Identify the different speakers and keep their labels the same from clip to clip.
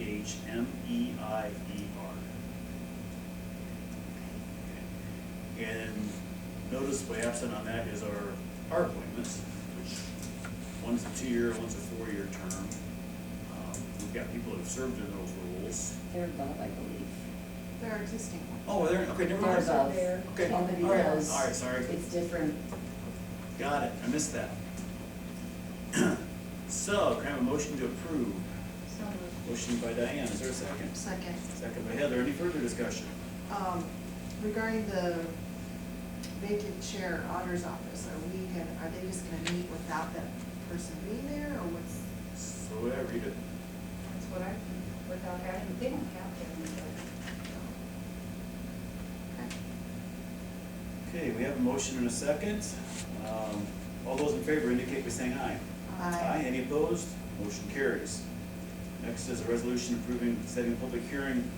Speaker 1: H M E I E R. And noticeably absent on that is our our appointments, which one's a two-year, one's a four-year term. Um, We've got people that have served in those roles.
Speaker 2: They're above, I believe.
Speaker 3: They're existing ones.
Speaker 1: Oh, there, okay, never
Speaker 2: They're
Speaker 1: mind.
Speaker 2: above.
Speaker 3: there.
Speaker 1: Okay,
Speaker 2: Only
Speaker 1: all right,
Speaker 2: because
Speaker 1: all right, sorry.
Speaker 2: It's different.
Speaker 1: Got it, I missed that. So, can I have a motion to approve?
Speaker 3: So moved.
Speaker 1: Motion by Diane, is there a second?
Speaker 3: Second,
Speaker 1: Second by Heather, any further discussion?
Speaker 3: um, regarding the vacant chair auditor's office, are we gonna, are they just gonna meet without that person being there, or what's?
Speaker 1: So, yeah, read it.
Speaker 4: That's what I, without having, they don't have to have anybody.
Speaker 3: Okay.
Speaker 1: Okay, we have a motion and a second. Um, All those in favor indicate by saying aye.
Speaker 3: Aye.
Speaker 1: Any opposed? Motion carries. Next is a resolution approving, setting a public hearing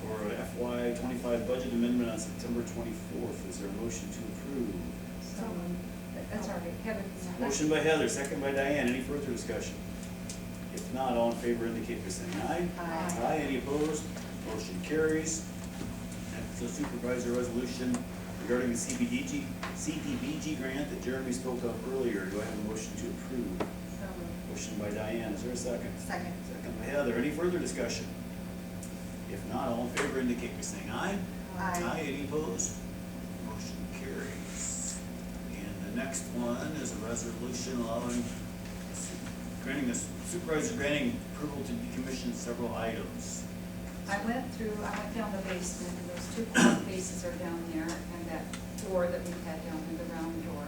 Speaker 1: for FY twenty-five budget amendment on September twenty-fourth. Is there a motion to approve?
Speaker 4: So, that- that's all right, Heather.
Speaker 1: Motion by Heather, second by Diane. Any further discussion? If not, all in favor indicate by saying aye.
Speaker 3: Aye.
Speaker 1: Aye, any opposed? Motion carries. Next, the supervisor resolution regarding the CBDG, CDBG grant that Jeremy spoke of earlier. Do I have a motion to approve?
Speaker 4: So moved.
Speaker 1: Motion by Diane, is there a second?
Speaker 3: Second.
Speaker 1: Second by Heather, any further discussion? If not, all in favor indicate by saying aye.
Speaker 3: Aye.
Speaker 1: any opposed? Motion carries. And the next one is a resolution allowing, granting, the supervisor granting approval to decommission several items.
Speaker 4: I went through, I went down the basement, and those two clock faces are down there, and that door that we had down there, the round door.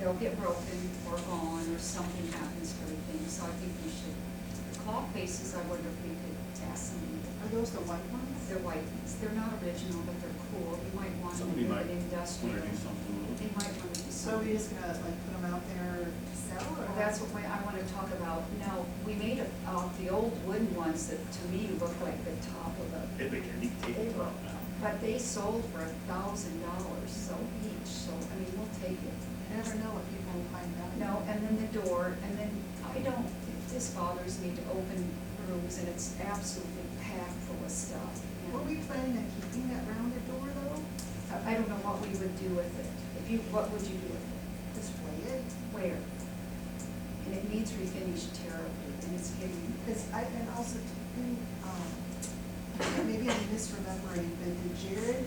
Speaker 4: They'll get broken or gone, or something happens to the thing, so I think we should, the clock faces, I wonder if we could ask somebody to
Speaker 3: Are those the white ones?
Speaker 4: They're white, they're not original, but they're cool, you might want them
Speaker 1: Somebody
Speaker 4: in
Speaker 1: might
Speaker 4: an
Speaker 1: want
Speaker 4: industrial.
Speaker 1: to do something with
Speaker 4: They
Speaker 1: it.
Speaker 4: might want to be
Speaker 3: So are we
Speaker 4: something.
Speaker 3: just gonna like put them out there to sell, or?
Speaker 4: That's what we- I want to talk about. Now, we made a- uh, the old wooden ones that to me look like the top of a,
Speaker 1: If we can dictate
Speaker 4: They
Speaker 1: it
Speaker 4: will.
Speaker 1: out now.
Speaker 4: but they sold for a thousand dollars, so each, so, I mean, we'll take it.
Speaker 3: You never know what people will find out.
Speaker 4: No, and then the door, and then, I don't, this bothers me to open rooms, and it's absolutely packed full of stuff. and-
Speaker 3: Were we planning on keeping that rounded door though?
Speaker 4: I I don't know what we would do with it. If you, what would you do with it?
Speaker 3: Display it?
Speaker 4: Where? And it needs refinish terribly, and it's getting,
Speaker 3: Because I, and also, didn't, um, maybe I'm misremembering, but did Jared,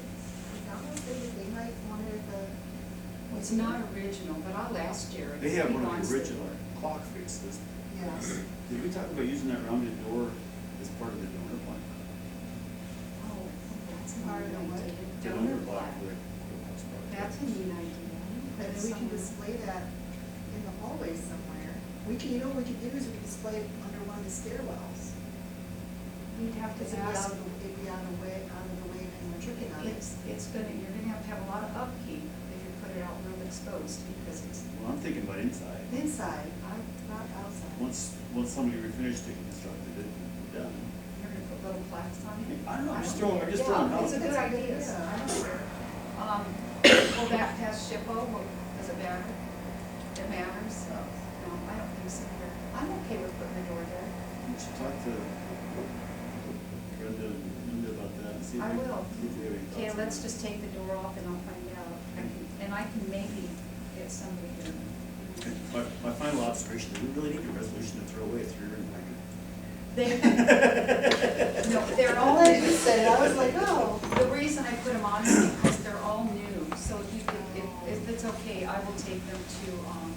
Speaker 3: not one say that they might uh, wanted the.
Speaker 4: it's not original, but I'll ask Jared.
Speaker 1: They
Speaker 4: if
Speaker 1: have
Speaker 4: he
Speaker 1: one of
Speaker 4: wants
Speaker 1: the
Speaker 4: it.
Speaker 1: original clock faces.
Speaker 3: Yes.
Speaker 1: Did we talk about using that rounded door as part of the donor plan?
Speaker 4: Oh, that's a
Speaker 3: Part of the what?
Speaker 4: neat idea.
Speaker 1: The
Speaker 4: Donor
Speaker 1: block for
Speaker 4: plaque.
Speaker 1: the courthouse project.
Speaker 4: That's a neat idea.
Speaker 3: And
Speaker 4: That's
Speaker 3: we can
Speaker 4: somewhere.
Speaker 3: display that in the hallway somewhere. We can, you know, what we could do is we could display it under one of the stairwells.
Speaker 4: We'd have
Speaker 3: Because
Speaker 4: to
Speaker 3: it'd be out
Speaker 4: ask,
Speaker 3: of, the- it'd be out of the way, out of the way of anyone tripping on it.
Speaker 4: it's, it's gonna, you're gonna have to have a lot of upkeep if you put it out real exposed, because it's,
Speaker 1: Well, I'm thinking about inside.
Speaker 3: Inside, not, not outside.
Speaker 1: Once, once somebody refinished it, constructed it, we're done.
Speaker 4: you're gonna put little plaques on it.
Speaker 1: I don't know, I'm just throwing, I'm just
Speaker 4: Yeah,
Speaker 1: throwing it
Speaker 4: It's a
Speaker 1: out.
Speaker 4: good
Speaker 3: That's a good
Speaker 4: idea.
Speaker 3: idea.
Speaker 4: I don't care. Um, will that pass SHPO, will, does it matter? It matters?
Speaker 3: So,
Speaker 4: No, I don't think so. I'm okay with putting the door there.
Speaker 1: We should talk to Brenda and Linda about that and see if
Speaker 4: I
Speaker 1: we,
Speaker 4: will.
Speaker 1: see if we have any thoughts.
Speaker 4: Okay, let's just take the door off and I'll find out. I can- And I can maybe get somebody to.
Speaker 1: My, my final observation, do we really need a resolution to throw away a three-ring blanket?
Speaker 4: They, no, they're all.
Speaker 3: All I just said, I was like, oh.
Speaker 4: The reason I put them on is because they're all new, so if you could, if, if it's okay, I will take them to, um,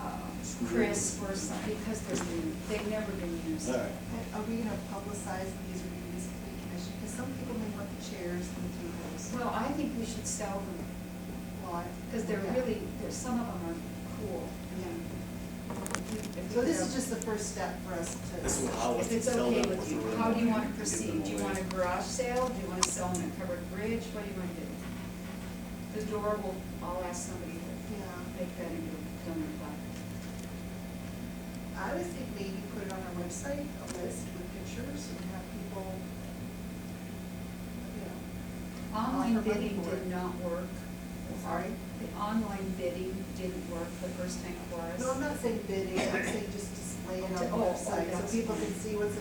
Speaker 4: uh, Chris or some, because they're new, they've never been used.
Speaker 1: All right,
Speaker 3: And Are we gonna publicize these reviews to the commission? Because some people may want the chairs and the tables.
Speaker 4: Well, I think we should sell them,
Speaker 3: Well, I-
Speaker 4: because they're
Speaker 3: yeah.
Speaker 4: really, there's, some of them are cool. If-
Speaker 3: So this is just the first step for us to.
Speaker 1: this will allow us
Speaker 4: If
Speaker 1: to
Speaker 4: it's
Speaker 1: sell them.
Speaker 4: okay with you,
Speaker 1: before
Speaker 4: how do you
Speaker 1: we
Speaker 4: wanna
Speaker 1: give them
Speaker 4: proceed? Do you
Speaker 1: away.
Speaker 4: want a garage sale? Do you wanna sell them at covered bridge? What do you wanna do? The door will, I'll ask somebody to
Speaker 3: Yeah,
Speaker 4: make that into a donor plaque.
Speaker 3: I would think maybe put it on our website, a list with pictures and have people, you know,
Speaker 4: Online
Speaker 3: Offer money
Speaker 4: bidding
Speaker 3: for
Speaker 4: did
Speaker 3: it.
Speaker 4: not work.
Speaker 3: sorry.
Speaker 4: The online bidding didn't work the first time for us.
Speaker 3: No, I'm not saying bidding, I'm saying just display it on the
Speaker 4: Oh, oh,
Speaker 3: website so
Speaker 4: that's
Speaker 3: people
Speaker 4: fine.
Speaker 3: can see what's